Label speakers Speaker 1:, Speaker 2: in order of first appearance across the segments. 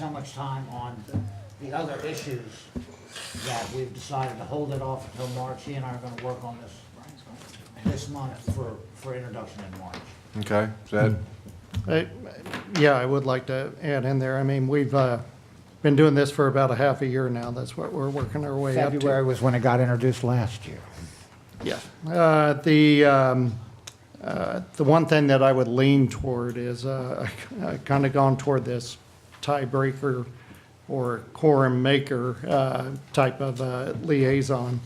Speaker 1: so much time on the other issues that we've decided to hold it off until March. He and I are gonna work on this this month for, for introduction in March.
Speaker 2: Okay, is that,
Speaker 3: I- Yeah, I would like to add in there, I mean, we've uh, been doing this for about a half a year now, that's what we're working our way up to.
Speaker 1: February was when it got introduced last year.
Speaker 3: Yeah. Uh, The, um, uh, the one thing that I would lean toward is, uh, I kind of gone toward this tiebreaker or quorum maker uh, type of uh, liaison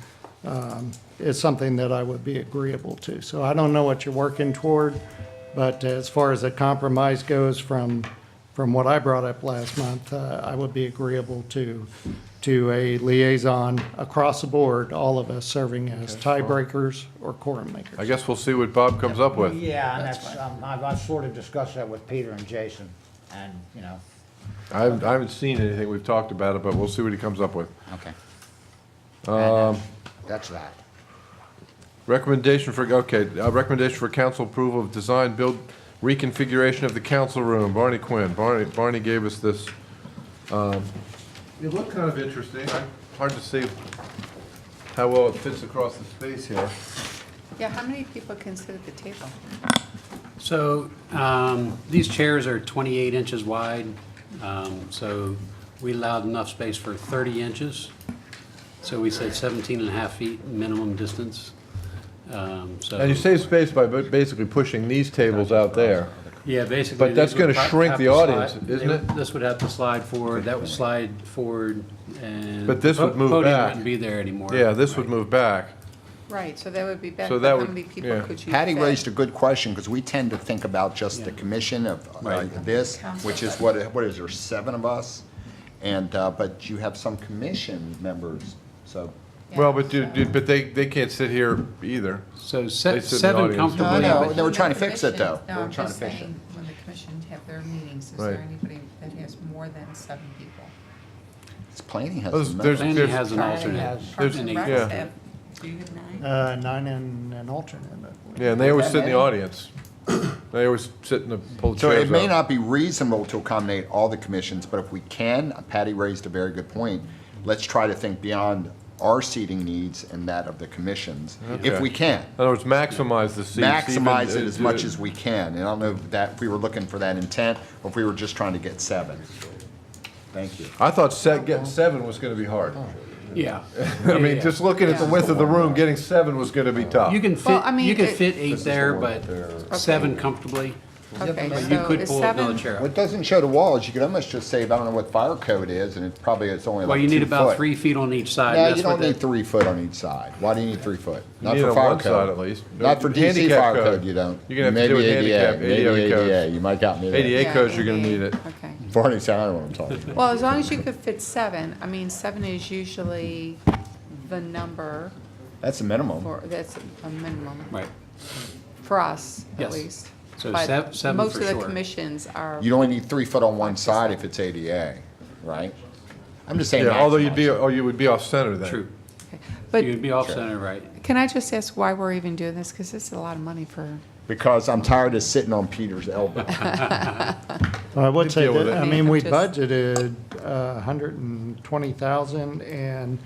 Speaker 3: um, is something that I would be agreeable to. So I don't know what you're working toward, but as far as a compromise goes from, from what I brought up last month, uh, I would be agreeable to, to a liaison across the board, all of us serving as tiebreakers or quorum
Speaker 2: I
Speaker 3: makers.
Speaker 2: guess we'll see what Bob comes up with.
Speaker 1: Yeah, and that's, um, I've, I've sort of discussed that with Peter and Jason, and, you know,
Speaker 2: I haven't, I haven't seen anything, we've talked about it, but we'll see what he comes up with.
Speaker 1: okay. Um. That's that.
Speaker 2: Recommendation for, okay, uh, recommendation for council approval of design build reconfiguration of the council room, Barney Quinn. Barney, Barney gave us this. um, It looked kind of interesting, I- hard to see how well it fits across the space here.
Speaker 4: Yeah, how many people can sit at the table?
Speaker 5: So um, these chairs are 28 inches wide, um, so we allowed enough space for 30 inches. So we said 17 and a half feet minimum distance. Um, So
Speaker 2: And you save space by ba- basically pushing these tables out there.
Speaker 5: Yeah, basically.
Speaker 2: But that's
Speaker 5: these would
Speaker 2: gonna
Speaker 5: pro-
Speaker 2: shrink
Speaker 5: have
Speaker 2: the
Speaker 5: to slide-
Speaker 2: audience, isn't
Speaker 5: they-
Speaker 2: it?
Speaker 5: This would have to slide forward, that would slide forward, and.
Speaker 2: But this would
Speaker 5: po-
Speaker 2: move
Speaker 5: Podium
Speaker 2: back.
Speaker 5: wouldn't be there anymore.
Speaker 2: Yeah, this would move back.
Speaker 4: Right, so that would be
Speaker 2: So
Speaker 4: better,
Speaker 2: that
Speaker 4: but how
Speaker 2: would-
Speaker 4: many people
Speaker 2: yeah.
Speaker 4: could you fit?
Speaker 6: Patty raised a good question, because we tend to think about just the commission of uh, this, which is what, what is there, seven of us? And, uh, but you have some commission members, so.
Speaker 4: Yeah,
Speaker 2: Well, but
Speaker 4: so-
Speaker 2: dude, dude, but they, they can't sit here either.
Speaker 5: So
Speaker 2: They
Speaker 5: se-
Speaker 2: sit in the
Speaker 5: seven
Speaker 2: audience.
Speaker 5: comfortably.
Speaker 6: No, no,
Speaker 5: but-
Speaker 6: no, Oh, we're trying to
Speaker 4: When the
Speaker 6: fix it, though.
Speaker 4: commission- No,
Speaker 6: We're
Speaker 4: I'm
Speaker 6: trying
Speaker 4: just
Speaker 6: to fix it.
Speaker 4: saying, when the commission have their meetings, is
Speaker 2: Right.
Speaker 4: there anybody that has more than seven people?
Speaker 6: It's planning has.
Speaker 2: There's-
Speaker 6: some
Speaker 2: there's-
Speaker 6: members.
Speaker 5: Lanny has an alternate.
Speaker 1: Yes.
Speaker 4: Parks
Speaker 5: There's-
Speaker 4: and Rec
Speaker 2: yeah.
Speaker 4: have-
Speaker 3: Uh, Nine and an alternate.
Speaker 2: Yeah, and they always sit in the audience. They always sit in the, pull
Speaker 6: So
Speaker 2: chairs
Speaker 6: it may
Speaker 2: out.
Speaker 6: not be reasonable to accommodate all the commissions, but if we can, uh, Patty raised a very good point. Let's try to think beyond our seating needs and that of the commissions,
Speaker 2: Okay.
Speaker 6: if we can.
Speaker 2: In other words, maximize the seats.
Speaker 6: maximize
Speaker 2: even-
Speaker 5: uh,
Speaker 6: it as much as we can. And I don't know if that, if we were looking for that intent, or if we were just trying to get seven. Thank you.
Speaker 2: I thought set, getting seven was gonna be hard.
Speaker 5: Yeah.
Speaker 2: I
Speaker 5: Yeah,
Speaker 2: mean,
Speaker 5: yeah.
Speaker 2: just looking at the
Speaker 4: Yeah.
Speaker 2: width of the room, getting seven was gonna be
Speaker 6: Oh.
Speaker 2: tough.
Speaker 5: You can
Speaker 4: Well, I
Speaker 5: fit,
Speaker 4: mean,
Speaker 5: you can
Speaker 4: it-
Speaker 5: fit eight there, but seven comfortably.
Speaker 4: Okay,
Speaker 5: But you
Speaker 4: so
Speaker 5: could
Speaker 4: is
Speaker 5: pull another
Speaker 4: seven,
Speaker 5: chair up.
Speaker 6: What doesn't show the wall is you could almost just say, I don't know what fire code is, and it probably it's only
Speaker 5: Well,
Speaker 6: like
Speaker 5: you need
Speaker 6: two
Speaker 5: about
Speaker 6: foot.
Speaker 5: three feet on each side.
Speaker 6: No,
Speaker 5: That's
Speaker 6: you
Speaker 5: what
Speaker 6: don't need
Speaker 5: that-
Speaker 6: three foot on each side. Why do you need three foot? Not
Speaker 2: need it
Speaker 6: for
Speaker 2: on
Speaker 6: fire
Speaker 2: one
Speaker 6: code.
Speaker 2: side at least.
Speaker 6: Not for DC
Speaker 2: Handicap
Speaker 6: fire
Speaker 2: code.
Speaker 6: code, you don't.
Speaker 2: You're gonna have to do it
Speaker 6: Maybe
Speaker 2: handicap,
Speaker 6: ADA, maybe
Speaker 2: ADA codes.
Speaker 6: ADA, you might got me there.
Speaker 2: ADA
Speaker 4: Yeah,
Speaker 2: codes, you're gonna
Speaker 4: ADA.
Speaker 2: need it.
Speaker 4: okay.
Speaker 6: Barney said, I don't know what I'm talking about.
Speaker 4: Well, as long as you could fit seven, I mean, seven is usually the number
Speaker 6: That's the minimum.
Speaker 4: for, that's a minimum.
Speaker 5: Right.
Speaker 4: For us, at
Speaker 5: Yes.
Speaker 4: least.
Speaker 5: So
Speaker 4: But
Speaker 5: sev- seven for
Speaker 4: Most of the
Speaker 5: sure.
Speaker 4: commissions are,
Speaker 6: You'd only need three foot on one side if it's ADA, right? I'm just saying
Speaker 2: Yeah, although you'd
Speaker 6: maximize
Speaker 2: be,
Speaker 6: it.
Speaker 2: oh, you would be off center then.
Speaker 5: True.
Speaker 4: but
Speaker 5: You'd be off center, right?
Speaker 4: can I just ask why we're even doing this? Because this is a lot of money for,
Speaker 6: Because I'm tired of sitting on Peter's elbow.
Speaker 3: I would say
Speaker 2: deal with
Speaker 3: that,
Speaker 2: it.
Speaker 3: I mean, we
Speaker 4: Just-
Speaker 3: budgeted a hundred and twenty thousand, and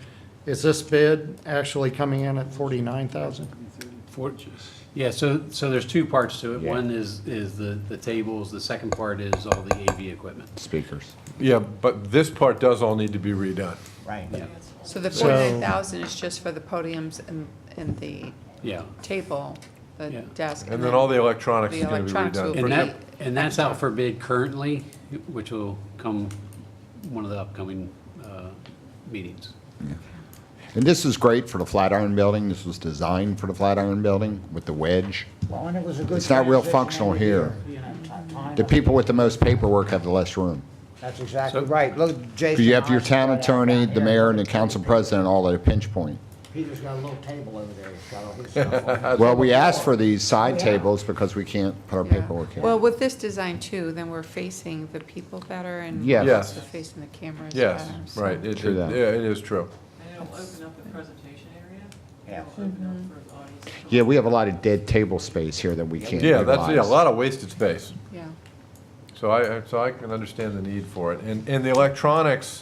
Speaker 3: is this bid actually coming in at forty-nine thousand?
Speaker 5: Four- Yeah, so, so there's two parts to it.
Speaker 6: Yeah.
Speaker 5: One is, is the, the tables, the second part is all the AV equipment.
Speaker 6: Speakers.
Speaker 2: Yeah, but this part does all need to be redone.
Speaker 1: Right.
Speaker 4: so the
Speaker 3: So-
Speaker 4: forty-nine thousand is just for the podiums and, and the
Speaker 5: Yeah.
Speaker 4: table, the
Speaker 5: Yeah.
Speaker 4: desk.
Speaker 2: And then all the electronics
Speaker 4: The
Speaker 2: is gonna be
Speaker 4: electronics
Speaker 2: redone.
Speaker 4: will be-
Speaker 5: And that, and that's out for bid currently, which will come one of the upcoming, uh, meetings.
Speaker 6: And this is great for the Flatiron Building. This was designed for the Flatiron Building with the wedge.
Speaker 1: Well, and it was a good.
Speaker 6: It's not real
Speaker 1: transition
Speaker 6: functional
Speaker 1: every
Speaker 6: here.
Speaker 1: year, you know, ti- time
Speaker 6: The
Speaker 1: of-
Speaker 6: people with the most paperwork have the less room.
Speaker 1: That's exactly
Speaker 5: So-
Speaker 1: right. Look, Jason.
Speaker 6: Because you have your
Speaker 1: I-
Speaker 6: town attorney, the
Speaker 1: Yeah.
Speaker 6: mayor, and the council president all at a pinch point.
Speaker 1: Peter's got a little table over there. He's got all his stuff on it.
Speaker 6: Well, we asked for these side tables because we can't put our
Speaker 4: Yeah.
Speaker 6: paperwork in.
Speaker 4: Well, with this design too, then we're facing the people better and
Speaker 6: Yes.
Speaker 4: we're
Speaker 2: Yes.
Speaker 4: also facing the cameras better.
Speaker 2: Yes,
Speaker 4: so-
Speaker 2: right, it,
Speaker 6: True
Speaker 2: it-
Speaker 6: that.
Speaker 2: yeah, it is true.
Speaker 7: And it'll open up the presentation area.
Speaker 1: Yeah.
Speaker 7: It'll open up for the audience. to come.
Speaker 6: Yeah, we have a lot of dead table space here that we can't
Speaker 2: Yeah, that's, yeah, a
Speaker 6: utilize.
Speaker 2: lot of wasted space.
Speaker 4: Yeah.
Speaker 2: So I, I- so I can understand the need for it. And, and the electronics,